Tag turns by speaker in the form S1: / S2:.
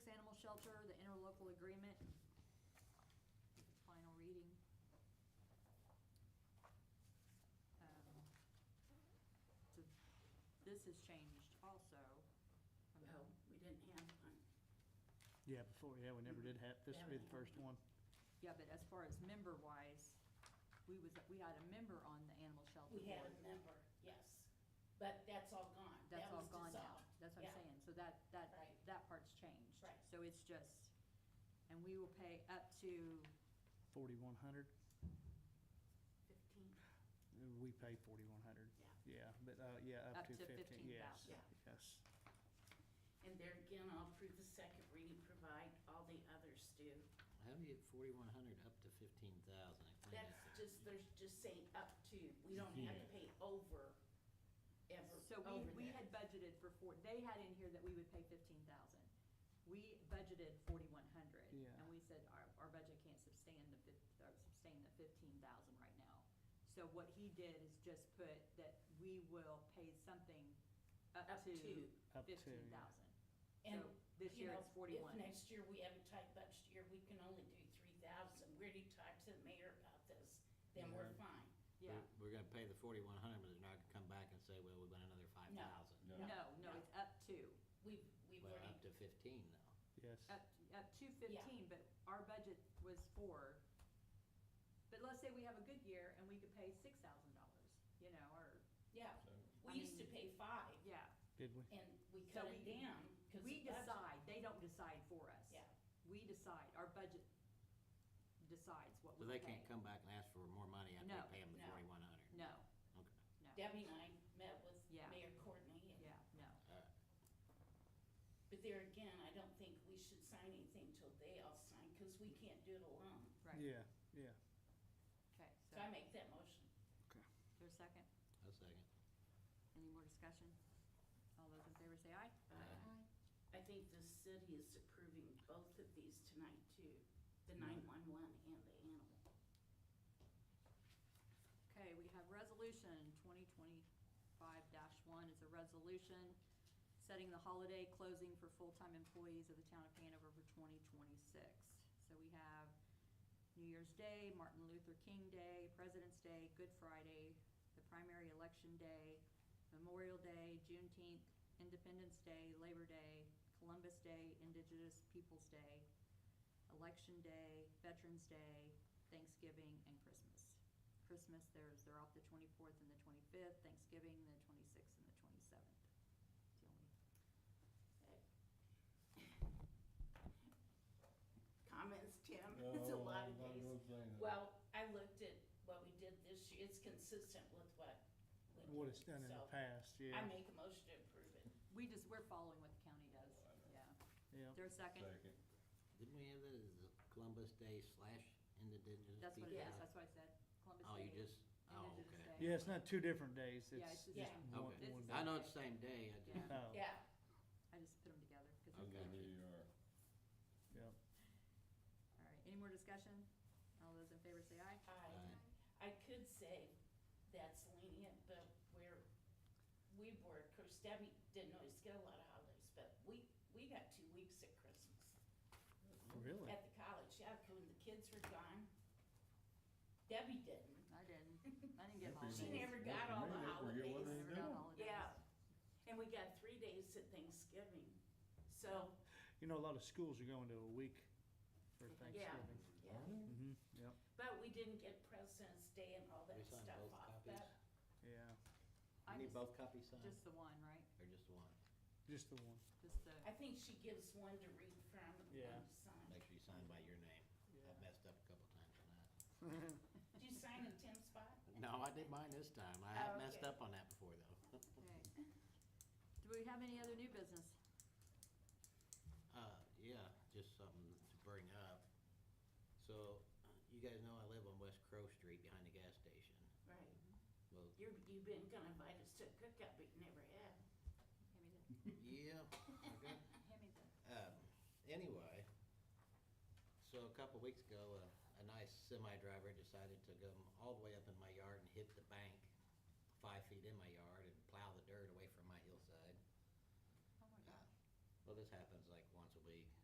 S1: Shelter, the interlocal agreement. Final reading. Um, So this has changed also. Um, from the-
S2: Well, we didn't have one.
S3: Yeah, before, yeah, we never did have, this would be the first one.
S1: Yeah, but as far as member-wise, we was, we had a member on the animal shelter
S2: We had
S1: board.
S2: a member, yes, but that's all gone.
S1: That's
S2: That
S1: all
S2: was
S1: gone now.
S2: dissolved.
S1: That's what I'm
S2: Yeah.
S1: saying. So that, that,
S2: Right.
S1: that part's changed.
S2: Right.
S1: So it's just, and we will pay up to,
S3: Forty-one hundred,
S2: Fifteen,
S3: we pay forty-one hundred.
S2: Yeah.
S3: Yeah, but, uh, yeah, up to fifteen, yes,
S1: 15,000.
S2: Yeah.
S3: yes.
S2: and there again, I'll approve the second reading, provide all the others do.
S4: How do you get forty-one hundred up to fifteen thousand?
S2: That's just, there's just saying up to, we don't have to pay over, ever,
S1: so we,
S2: over
S1: we
S2: that.
S1: had budgeted for four, they had in here that we would pay fifteen thousand. We budgeted forty-one hundred.
S3: Yeah.
S1: And we said our, our budget can't sustain the fif, or sustain the fifteen thousand right now. So what he did is just put that we will pay something up
S2: Up
S1: to
S2: to.
S3: Up to, yeah.
S1: fifteen thousand. Uh,
S2: And,
S1: So this
S2: you
S1: year
S2: know,
S1: it's 41.
S2: If next year we have a tight budget year, we can only do three thousand, we already talked to the mayor about this, then we're
S4: Mhm.
S2: fine.
S1: Yeah.
S4: We're gonna pay the forty-one hundred, but they're not gonna come back and say, well, we want another five thousand.
S5: No.
S1: No, no, it's up to.
S2: We've, we've
S4: Well, up
S2: already,
S4: to fifteen though.
S3: Yes,
S1: Up, up to fifteen, but our budget was four. But let's say we have a good year and we could pay six thousand dollars, you know, or,
S2: yeah,
S5: So-
S2: we
S1: I
S2: used to
S1: mean-
S2: pay five,
S1: yeah.
S3: did we?
S2: and we
S1: So
S2: cut it
S1: we-
S2: down, cause
S1: We
S2: the budget-
S1: decide, they don't decide for us.
S2: Yeah.
S1: We decide, our budget decides what we
S4: So
S1: pay.
S4: they can't come back and ask for more money after
S1: No.
S4: we pay them the
S2: No.
S4: forty-one hundred?
S1: No,
S4: Okay,
S1: no,
S2: Debbie and I met with
S1: Yeah.
S2: Mayor Courtney, and-
S1: yeah, no.
S4: all right.
S2: but there again, I don't think we should sign anything till they all sign, cause we can't do it alone.
S1: Right.
S3: Yeah, yeah.
S1: Okay,
S2: So I
S1: so,
S2: make that motion.
S3: Okay.
S1: there's a second?
S4: I'll second.
S1: Any more discussion? All those in favor say aye.
S4: Aye.
S2: Uh, I think the city is approving both of these tonight too, the nine-one-one and the animal.
S1: Okay, we have resolution twenty twenty-five one. It's a resolution setting the holiday closing for full-time employees of the town of Hanover for twenty twenty-six. So we have New Year's Day, Martin Luther King Day, President's Day, Good Friday, the primary election day, Memorial Day, Juneteenth, Independence Day, Labor Day, Columbus Day, Indigenous Peoples' Day, Election Day, Veterans Day, Thanksgiving, and Christmas. Christmas, there's, they're off the twenty-fourth and the twenty-fifth, Thanksgiving, the twenty-sixth and the twenty-seventh. The only
S2: Comments, Tim?
S5: No,
S2: It's a lot
S5: I'm
S2: of
S5: not
S2: days.
S5: gonna say that.
S2: Well, I looked at what we did this year, it's consistent with what. we
S3: What
S2: did,
S3: it's done in the
S2: so
S3: past,
S2: I
S3: yeah,
S2: make a motion to approve it.
S1: We just, we're following what the county does, yeah.
S3: yeah.
S1: Is there a second?
S5: Second.
S4: Didn't we have that as Columbus Day slash Indigenous?
S1: That's what it is,
S4: Peoples' Day?
S1: that's what I said. Columbus
S4: Oh, you
S1: Day,
S4: just, oh,
S1: Indigenous
S4: okay.
S1: Day.
S3: Yeah, it's not two different days,
S1: Yeah,
S3: it's
S1: it's
S3: just
S2: just-
S3: one,
S2: Yeah.
S1: It's
S3: one
S1: the
S3: day.
S4: I know it's the same day, I
S1: Yeah.
S4: just, uh,
S3: Oh,
S2: Yeah,
S1: I just put them together, because
S5: I
S1: it's
S5: know
S1: good.
S5: who you are.
S3: yeah.
S1: All right, any more discussion? All those in favor say aye.
S2: I, I could say that's lenient, but we're, we were, of course, Debbie didn't always get a lot of holidays, but we, we got two weeks at Christmas.
S3: Really?
S2: At the college, yeah, 'cause when the kids were gone. Debbie didn't.
S1: I didn't, I didn't get
S5: That'd be
S2: She
S1: holidays.
S5: nice.
S2: never got all the
S5: Yeah, forget
S1: I
S5: what they
S1: never
S2: holidays.
S1: got
S5: do.
S1: holidays.
S2: Yeah, and we got three days at Thanksgiving, so,
S3: You know, a lot of schools are going to a week for
S2: yeah,
S3: Thanksgiving.
S2: yeah.
S3: Mm-hmm, yep,
S2: But we didn't get President's Day and all that
S4: we signed
S2: stuff
S4: both
S2: off,
S4: copies?
S2: but
S3: yeah,
S1: I
S4: You need
S1: just-
S4: both copies signed,
S1: Just the one, right?
S4: or just the one?
S3: just the one.
S1: Just the,
S2: I think she gives one to read from and
S3: Yeah.
S2: one to sign.
S4: Make sure you sign by your name.
S3: Yeah.
S4: I messed up a couple times on that.
S2: Did you sign in Tim's spot?
S4: No, I did mine this time. I
S2: Oh,
S4: have messed
S2: okay.
S4: up on that before though.
S1: okay. Do we have any other new business?
S4: Uh, yeah, just something to bring up. So, uh, you guys know I live on West Crow Street behind the gas station.
S2: Right.
S4: Well,
S2: You're, you've been gonna invite us to a cookout, but you never have.
S1: Hand me the,
S4: yeah, okay.
S1: hand me the,
S4: Um, anyway, so a couple weeks ago, uh, a, a nice semi driver decided to go all the way up in my yard and hit the bank five feet in my yard and plow the dirt away from my hillside.
S1: oh my
S4: Uh,
S1: God.
S4: Well, this happens like once a week.